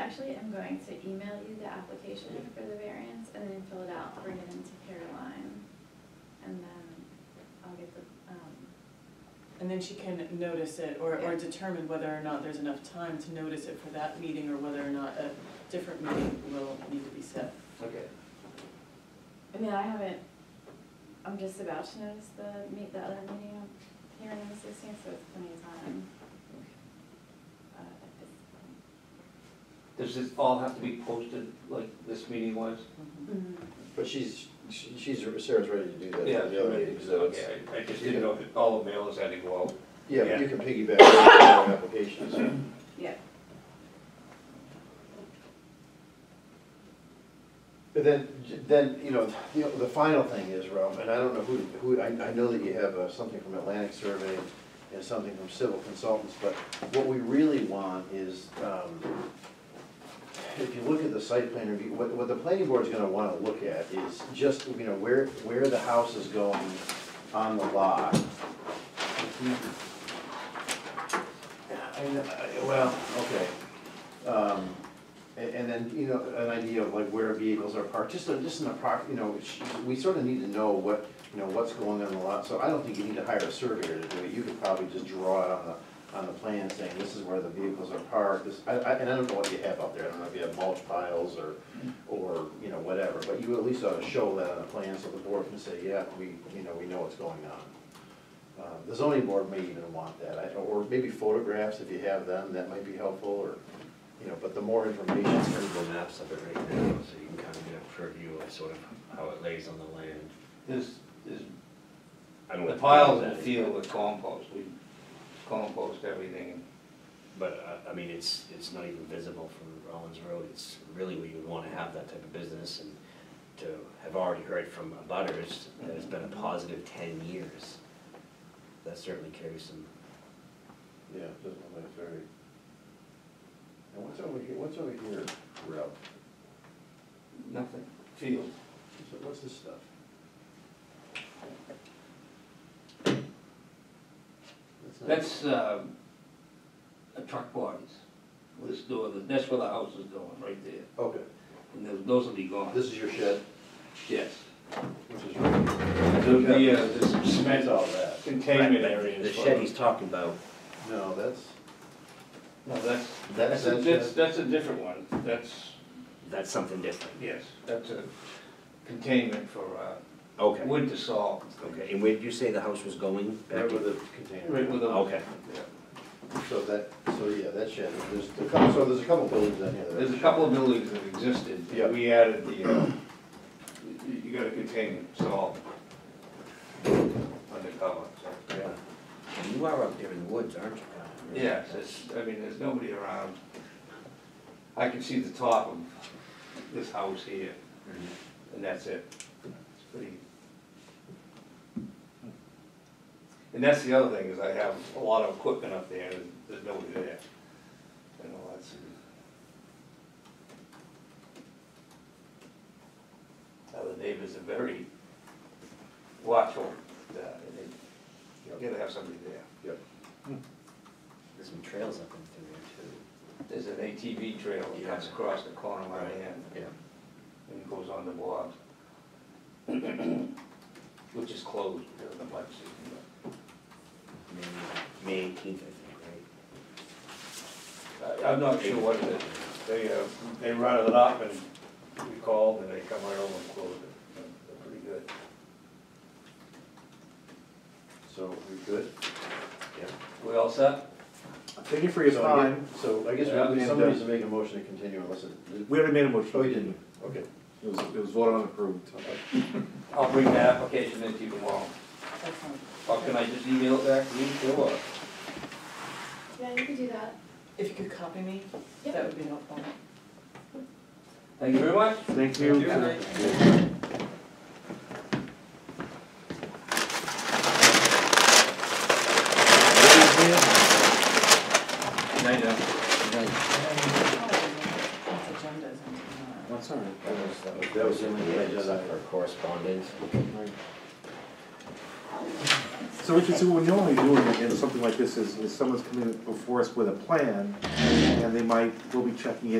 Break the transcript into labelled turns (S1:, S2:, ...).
S1: going to email you the application for the variance and then fill it out, bring it into Caroline. And then I'll get the, um,
S2: And then she can notice it or, or
S1: Yeah.
S2: determine whether or not there's enough time to notice it for that meeting or whether or not a different meeting will need to be set.
S3: Okay.
S1: I mean, I haven't, I'm just about to notice the meet, the other meeting I'm here on the sixteenth, so it's plenty of time. uh, at this point.
S3: Does this all have to be posted like this meeting was?
S2: Mm-hmm.
S4: But she's, she- she's, Sarah's ready to do that. for the other meeting, so it's-
S3: Okay, I- I just didn't know if all the mailers had to go out.
S4: Yeah, but
S3: Yeah.
S4: you can piggyback on your applications.
S1: Yeah,
S4: But then, then, you know, the, the final thing is, Ralph, and I don't know who, who, I, I know that you have uh, something from Atlantic Survey and something from Civil Consultants, but what we really want is, um, if you look at the site plan review, what, what the planning board's gonna wanna look at is just, you know, where, where the house is going on the lot. I know, I- uh, well, okay. Um, and, and then, you know, an idea of like where vehicles are parked, just, a- just in the park, you know, sh- we sort of need to know what, you know, what's going on in the lot, so I don't think you need to hire a surveyor to do it, you could probably just draw it on the, on the plan saying, this is where the vehicles are parked, this, I, I, and I don't know what you have out there, I don't know if you have mulch piles or, or, you know, whatever, but you at least ought to show that on the plan so the board can say, yeah, we, you know, we know what's going on. Uh, The zoning board may even want that, I- or maybe photographs if you have them, that might be helpful, or, you know, but the more information.
S5: It's Google Maps of it right now, so you can kind of get a preview of sort of how it lays on the land.
S3: There's, there's
S5: I don't
S3: the
S5: know what
S3: piles
S5: that
S3: of
S5: is,
S3: field with compost, we compost everything.
S5: But, uh, I mean, it's, it's not even visible from Rollins Road, it's really where you would wanna have that type of business, and to have already heard from butters, that it's been a positive ten years, that certainly carries some,
S4: Yeah, it doesn't look like very. And what's over here, what's over here, Ralph?
S3: Nothing. Field.
S4: So What's this stuff? not-
S6: That's, um, a truck bodies, this door, that's where the house is going, right there,
S4: Okay,
S6: and those, those will be gone.
S4: this is your shed,
S6: Yes.
S4: which is right.
S3: There'll be, uh, there's some
S4: That's
S3: cement
S4: all that.
S3: containment areas.
S5: the
S3: for-
S5: shed he's talking about,
S4: No, that's,
S3: No, that's,
S4: that's,
S3: that's, a- that's,
S4: that's,
S3: that's a different one, that's,
S5: that's something different.
S3: yes, that's a containment for, uh,
S5: Okay,
S3: wood to salt.
S5: okay, and where did you say the house was going?
S4: right
S5: Back
S4: where
S5: to-
S4: the
S3: Right
S4: container.
S3: with a.
S5: Okay.
S3: Yeah.
S4: So that, so yeah, that shed, there's a couple, so there's a couple buildings down here. that are-
S3: There's a couple of buildings that existed,
S4: Yeah.
S3: we added the, uh, you- you gotta contain salt undercover, so.
S4: Yeah.
S5: You are up there in the woods, aren't you? Colin? Really?
S3: Yes, it's, I mean, there's nobody around. I can see the top of this house here, and that's it. It's pretty. And that's the other thing, is I have a lot of equipment up there, and there's nobody there. You know, that's. Now, the neighbors are very watchful, uh, and they, you gotta have somebody there.
S4: Yep.
S5: There's some trails up in through there
S3: There's an ATV trail that comes
S5: Yeah.
S3: across the corner of my
S5: Right.
S3: hand
S5: too. Yeah.
S3: and goes on the block. Which is closed during the mud season,
S5: May- May eighteenth, I think, right?
S3: but I- I'm not sure what it is. They, uh, they run it up and we called and they come right over and close it. They're pretty good.
S4: So we good?
S3: We all set?
S7: Thank you for your
S4: So I get-
S7: time.
S4: So I guess
S3: Yeah,
S4: we-
S7: and,
S4: somebody
S7: uh,
S4: needs to make a motion to continue unless it,
S7: We already made a motion.
S4: oh, you didn't, okay.
S7: It was, it was voted on and approved.
S3: I'll bring the application in to you tomorrow.
S2: Excellent.
S3: Or can I just email it back to you? Sure.
S1: yeah, you could do that.
S2: If you could copy me, that
S1: Yep.
S2: would be helpful.
S3: Thank you very much.
S7: Thank you.
S3: Thank you. Night now.
S2: That's agendas and, uh,
S7: That's all right.
S5: That was, that was.
S4: That was the only thing I did.
S5: Except for correspondence.
S7: So Richard, so what we normally do in, in something like this is, is someone's coming before us with a plan, and they might, we'll be checking in